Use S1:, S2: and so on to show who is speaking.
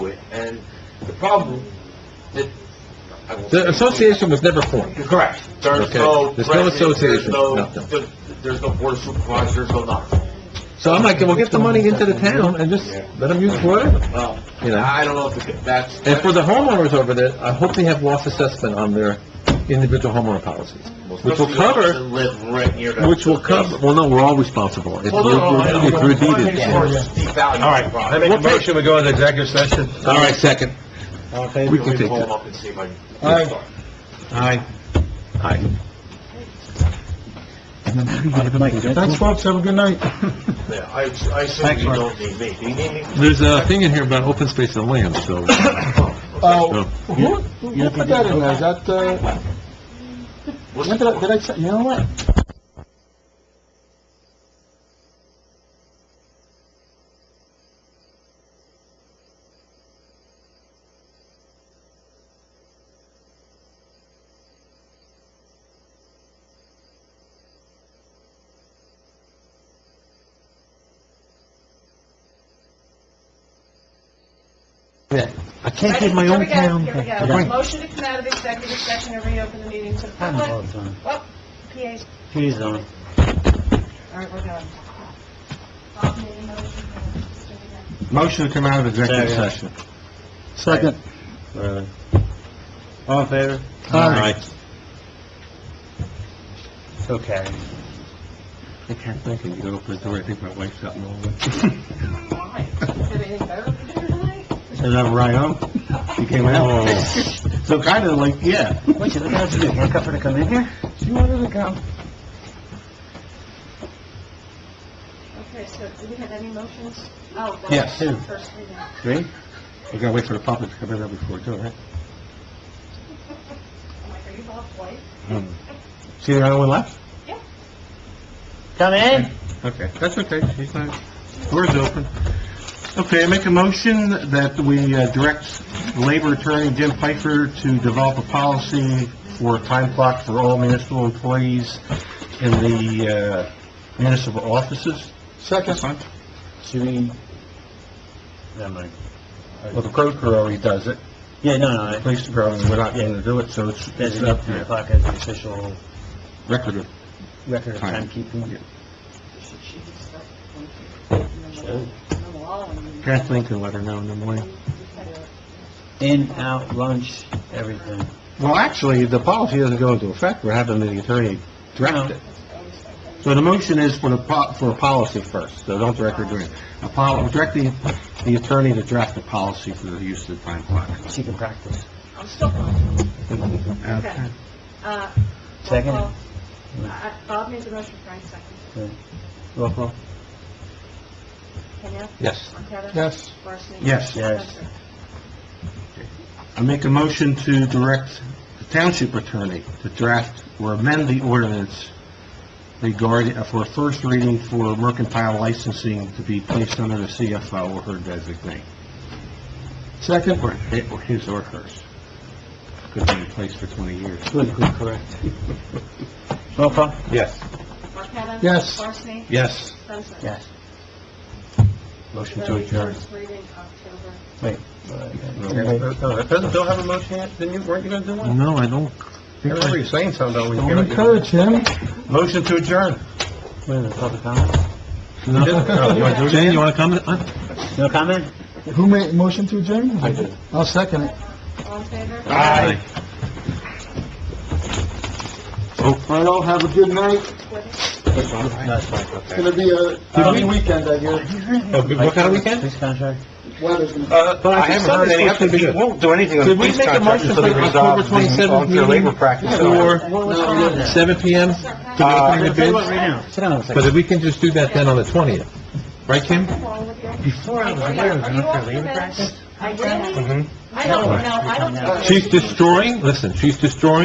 S1: And the problem, that... I won't-
S2: The association was never formed.
S1: Correct. There's
S2: Okay.
S1: no...
S2: There's no
S1: president,
S2: association,
S1: There's no,
S2: nothing.
S1: there- there's no board of supervisors, there's no nothing.
S2: So I'm like, well, get the money into the town and just let them use whatever,
S1: Well,
S2: you know?
S1: I don't know if it- that's...
S2: And for the homeowners over there, I hope they have loss assessment on their individual homeowner policies, which will
S1: Especially those that
S2: cover,
S1: Live right near that.
S2: which will cover, well, no, we're all responsible. It's
S1: Well, no, no, I know.
S2: it's
S1: Make sure
S2: deeded.
S1: it's devalued.
S3: All right, I make a motion, we go into executive session.
S2: All right, second.
S3: Okay.
S2: We can
S1: Let me
S2: take
S1: pull
S2: that.
S1: them up and see if I... can-
S3: All right. Aye.
S2: Aye.
S3: Thanks, folks, have a good night.
S1: Yeah, I, I assume
S3: Thanks,
S1: you
S3: Mark.
S1: don't need me. Do you need me?
S2: There's a thing in here about open space and land, so,
S3: Oh,
S2: so,
S3: who, who put that in there? Is that, uh,
S1: What's
S3: when did I, did I, say- you know what?
S2: I can't keep my own town.
S4: Here we go, here we go. Motion to come out of executive session and reopen the meeting to the public. Oh, PA's,
S3: Please, don't.
S4: all right, we're done.
S2: Motion to come out of executive
S3: Second.
S2: session.
S3: Second. All in favor?
S2: Aye.
S3: Okay.
S2: I can't think, and you go open the door, I think my wife's out in the hallway.
S4: Why? Is there anything better for dinner tonight?
S3: Is that right, huh? You came out? So kind of like, yeah. Wait, you look at us, you handcuffed her to come in here? She wanted to come.
S4: Okay, so do we have any motions? Oh, well,
S2: Yes.
S4: First reading.
S2: Three? We gotta wait for the public to come in there before we do it, right?
S4: I'm like, are you Bob White?
S3: Hmm.
S2: See the other one left?
S3: Come in?
S2: Okay, that's okay, she's not, door's open. Okay, I make a motion that we uh, direct Labor Attorney Jim Pfeiffer to develop a policy for a time clock for all municipal employees in the uh, municipal offices.
S3: Second. Should we? Never mind.
S2: Well, the code crew already does it,
S3: Yeah, no, no, I-
S2: police department, we're not going to do it, so it's
S3: there's
S2: it's
S3: enough
S2: up
S3: three
S2: to
S3: o'clock as the official
S2: record of
S3: record of
S2: Time.
S3: timekeeping.
S4: She- she can start one, two, and then we'll- and then
S2: Kathleen can let her know in the morning.
S4: we'll all-
S3: In, out, lunch, everything.
S2: Well, actually, the policy doesn't go into effect, we're having the attorney
S3: direct it.
S2: So the motion is for the, po- for a policy first, so don't direct her doing it. A pol, direct the, the attorney to draft a policy for the use of the time clock.
S3: She can practice.
S4: I'm still going.
S2: Okay.
S4: Uh,
S3: Second.
S4: well, I- I- Bob made the motion, Frank seconded.
S3: Roll call.
S4: Kenya?
S2: Yes.
S4: Marqueta?
S2: Yes.
S4: Varsany?
S2: Yes.
S3: Yes.
S4: Spencer?
S2: I make a motion to direct the township attorney to draft or amend the ordinance regarding, uh, for a first reading for mercantile licensing to be placed under the CFO or her designate. Second. Or or his or hers. Could be in place for 20 years.
S3: Good, good, correct. Roll call?
S2: Yes.
S4: Marqueta?
S2: Yes.
S4: Varsany?
S2: Yes.
S4: Spencer?
S3: Yes.
S2: Motion to adjourn.
S4: First reading October.
S3: Wait.
S2: Doesn't Bill have a motion yet? Didn't you, weren't you gonna do one?
S3: No, I don't.
S2: I remember you saying something about when you
S3: Don't
S2: came up.
S3: encourage him.
S2: Motion to adjourn.
S3: Wait a minute, public comment?
S2: No, you wanna do it?
S3: Jane, you wanna comment? No comment?
S5: Who made motion to adjourn?
S2: I did.
S5: I'll second it.
S4: All in favor?
S5: Well, have a good night.
S3: That's fine,
S5: It's gonna be a busy weekend, I guess.
S2: What kind of weekend?
S3: Police contract?
S5: Weather's gonna...
S2: Uh,
S3: But I think Sunday's supposed to be
S2: We
S3: good.
S2: won't do anything on
S3: Did we
S2: police
S3: make a
S2: contracts
S3: motion
S2: until they
S3: for
S2: resolve
S3: October 27th
S2: the unfair labor
S3: meeting?
S2: practice.
S3: Or-
S2: Or seven PM?
S3: Uh,
S2: the
S3: tell you
S2: bids?
S3: what, right now. Sit down a second.
S2: Because we can just do that then on the 20th. Right, Kim?
S3: Before I was aware of an unfair labor practice,
S4: I really, I don't know, I don't know.
S2: She's destroying, listen, she's destroying